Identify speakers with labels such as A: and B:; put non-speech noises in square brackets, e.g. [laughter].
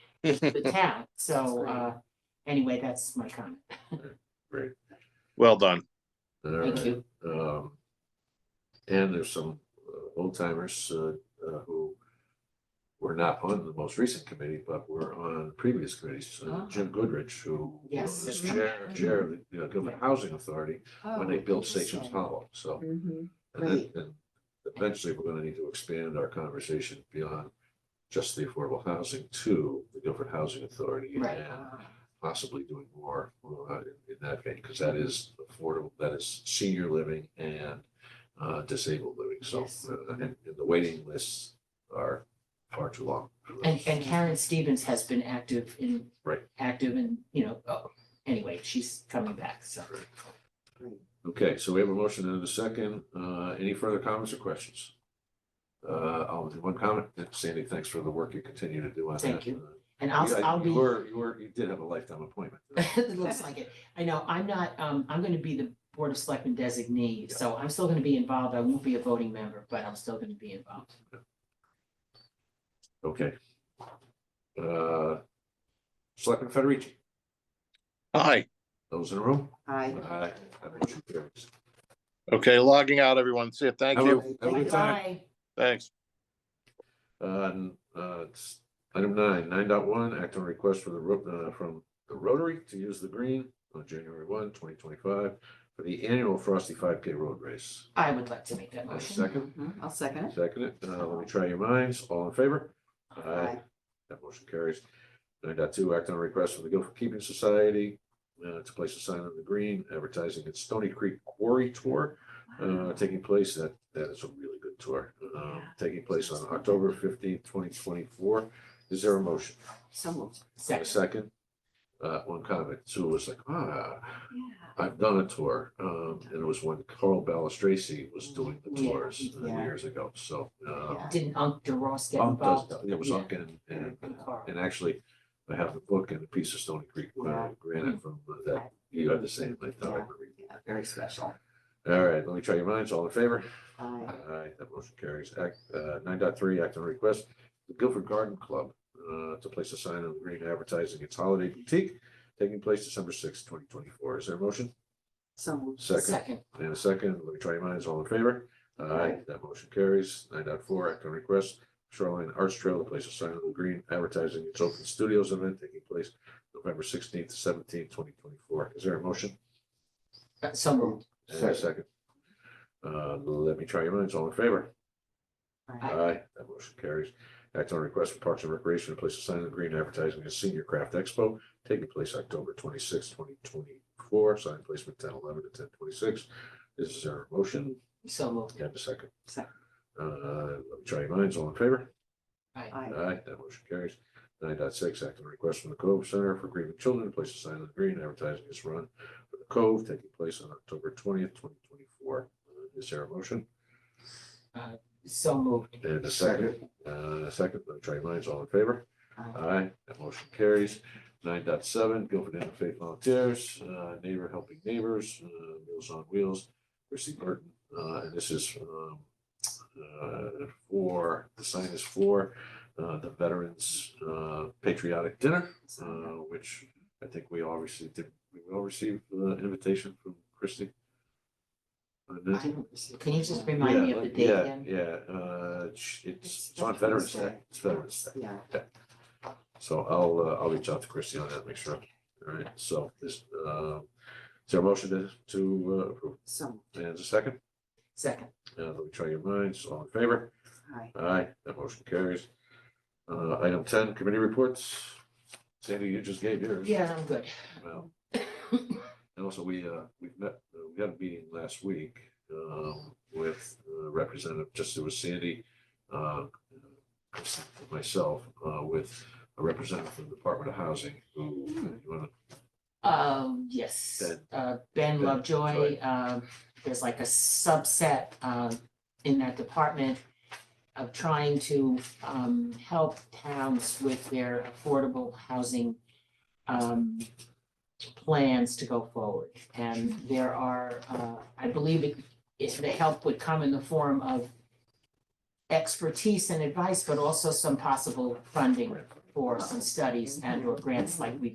A: the
B: [laughs]
A: town, so,
B: Great.
A: uh, anyway, that's my comment.
C: Well done.
A: Thank you.
B: Um, and there's some uh, old timers, uh, uh, who were not on the most recent committee, but were on previous committees. Uh,
A: Ah.
B: Jim Goodrich, who
A: Yes.
B: was chair, chair of the uh, Gilman Housing Authority
A: Oh,
B: when they built Stations Hollow, so.
A: Mm-hmm.
D: Mhm.
B: And then, and eventually, we're gonna need to expand our conversation beyond just the affordable housing to the Guilford Housing Authority
A: Right.
B: and possibly doing more uh, in in that vein, because that is affordable, that is senior living and uh, disabled living. So,
A: Yes.
B: uh, and and the waiting lists are far too long. for those.
A: And, and Karen Stevens has been active in.
B: Right.
A: Active and, you know, oh, anyway, she's coming back, so.
B: Okay, so we have a motion and a second. Uh, Any further comments or questions? Uh, I'll do one comment. Sandy, thanks for the work you continue to do on that.
A: Thank you.
B: Uh,
A: And I'll,
B: You- I-
A: I'll
B: you
A: be.
B: Were, you were, you did have a lifetime appointment.
A: [laughs] It looks like it. I know, I'm not, um, I'm gonna be the Board of Selectmen designee, so I'm still gonna be involved. I won't be a voting member, but I'm still gonna be involved.
B: Okay. Uh, Selectman Federici,
C: Hi.
B: those in the room?
D: Aye.
B: Aye. That motion carries.
C: Okay, logging out, everyone. See you. Thank
B: Have a-
C: you.
B: Have a good time.
A: Bye.
C: Thanks.
B: Uh, n- uh, it's Item nine, nine dot one, act on request for the, Ro- uh, from the Rotary to use the green on January one, twenty twenty-five for the annual Frosty five K road race.
A: I would like to make that
B: Uh,
A: motion.
B: Second,
D: Mhm. I'll second it.
B: second it. Uh, Let me try your minds. All in favor? Aye.
D: Aye.
B: That motion carries. Nine dot two, act on a request from the Guilford Keeping Society uh, to place a sign on the green advertising its Stony Creek Quarry Tour uh, taking place. That, that is a really good tour. Um,
D: Yeah.
B: Taking place on October fifteenth, twenty twenty-four. Is there a motion?
D: So moved.
B: A
A: Second.
B: second? Uh, One comment. Sue was like,
D: Yeah.
B: ah, I've done a tour. Um, And it was when Carl Balistraci was doing the
A: Yeah,
B: tours uh,
D: yeah.
B: years ago. So. uh,
D: Yeah.
A: Didn't Unc DeRoss get
B: Unk does-
A: involved?
B: It was
A: Yeah.
B: Unk and, and
A: And Carl.
B: and actually, I have the book and a piece of Stony Creek uh,
D: Yeah.
B: granite from that. You had the same, I thought. I
D: Yeah.
B: remembered.
D: Yeah, Very special.
B: All right, let me try your minds. All in favor?
D: Aye.
B: Aye, that motion carries. Act, uh, nine dot three, act on request, the Guilford Garden Club, uh, to place a sign on the green advertising its holiday boutique taking place December sixth, twenty twenty-four. Is there a motion?
D: So moved.
B: Second,
A: Second.
B: and a second. Let me try your minds. All in favor? Aye,
D: Aye.
B: that motion carries. Nine dot four, act on request, Shoreline Arts Trail to place a sign on the green advertising its open studios event taking place November sixteenth to seventeenth, twenty twenty-four. Is there a motion?
A: Uh, So moved.
B: And a second. Uh, let me try your minds. All in favor?
D: Aye.
B: Aye, that motion carries. Act on request for Parks and Recreation to place a sign in the green advertising as Senior Craft Expo taking place October twenty-sixth, twenty twenty-four, sign placement ten eleven to ten twenty-six. Is there a motion?
A: So moved.
B: And a second.
D: Second.
B: Uh, let me try your minds, all in favor?
A: Aye.
D: Aye.
B: Aye, that motion carries. Nine dot six, act on request from the Cove Center for Grieving Children to place a sign in the green advertising its run for the Cove taking place on October twentieth, twenty twenty-four. Uh, Is there a motion?
A: So moved.
B: And a second, uh, second, let me try your minds, all in favor? Aye, that motion carries. Nine dot seven, Guilford Interfaith Volunteers, uh, Neighbor Helping Neighbors, uh, Meals on Wheels, Chrissy Burton. Uh, and this is, um, uh, for, the sign is for, uh, the Veterans uh, Patriotic Dinner, uh, which I think we all received, did we all received the invitation from Christie? Uh,
A: I
B: did-
A: don't- Can you just remind me of
B: Yeah,
A: the
B: let-
A: date
B: yeah,
A: again?
B: Yeah, uh, it's, it's
D: It's
B: it's on Veterans
D: Veterans
B: Day,
D: Day.
B: it's Veterans Day.
D: Yeah.
B: So I'll, uh, I'll reach out to Christie on that, make sure. All right, so this, uh, is there a motion to, to uh, approve?
D: So moved.
B: And a second,
A: Second.
B: uh, let me try your minds, all in favor?
D: Aye.
B: Aye, that motion carries. Uh, item ten, committee reports. Sandy, you just gave yours.
A: Yeah, I'm good.
B: Well, And also, we, uh, we've met, uh, we had a meeting last week, um, with uh, Representative, just it was Sandy, uh, myself, uh, with a representative from the Department of Housing, who, you wanna
A: Um, yes,
B: Ben.
A: uh, Ben
B: Ben
A: Lovejoy,
B: Lovejoy.
A: um, there's like a subset, um, in that department of trying to, um, help towns with their affordable housing, um, plans to go forward. And there are, uh, I believe it, it's, the help would come in the form of expertise and advice, but also some possible funding for some studies and or grants like we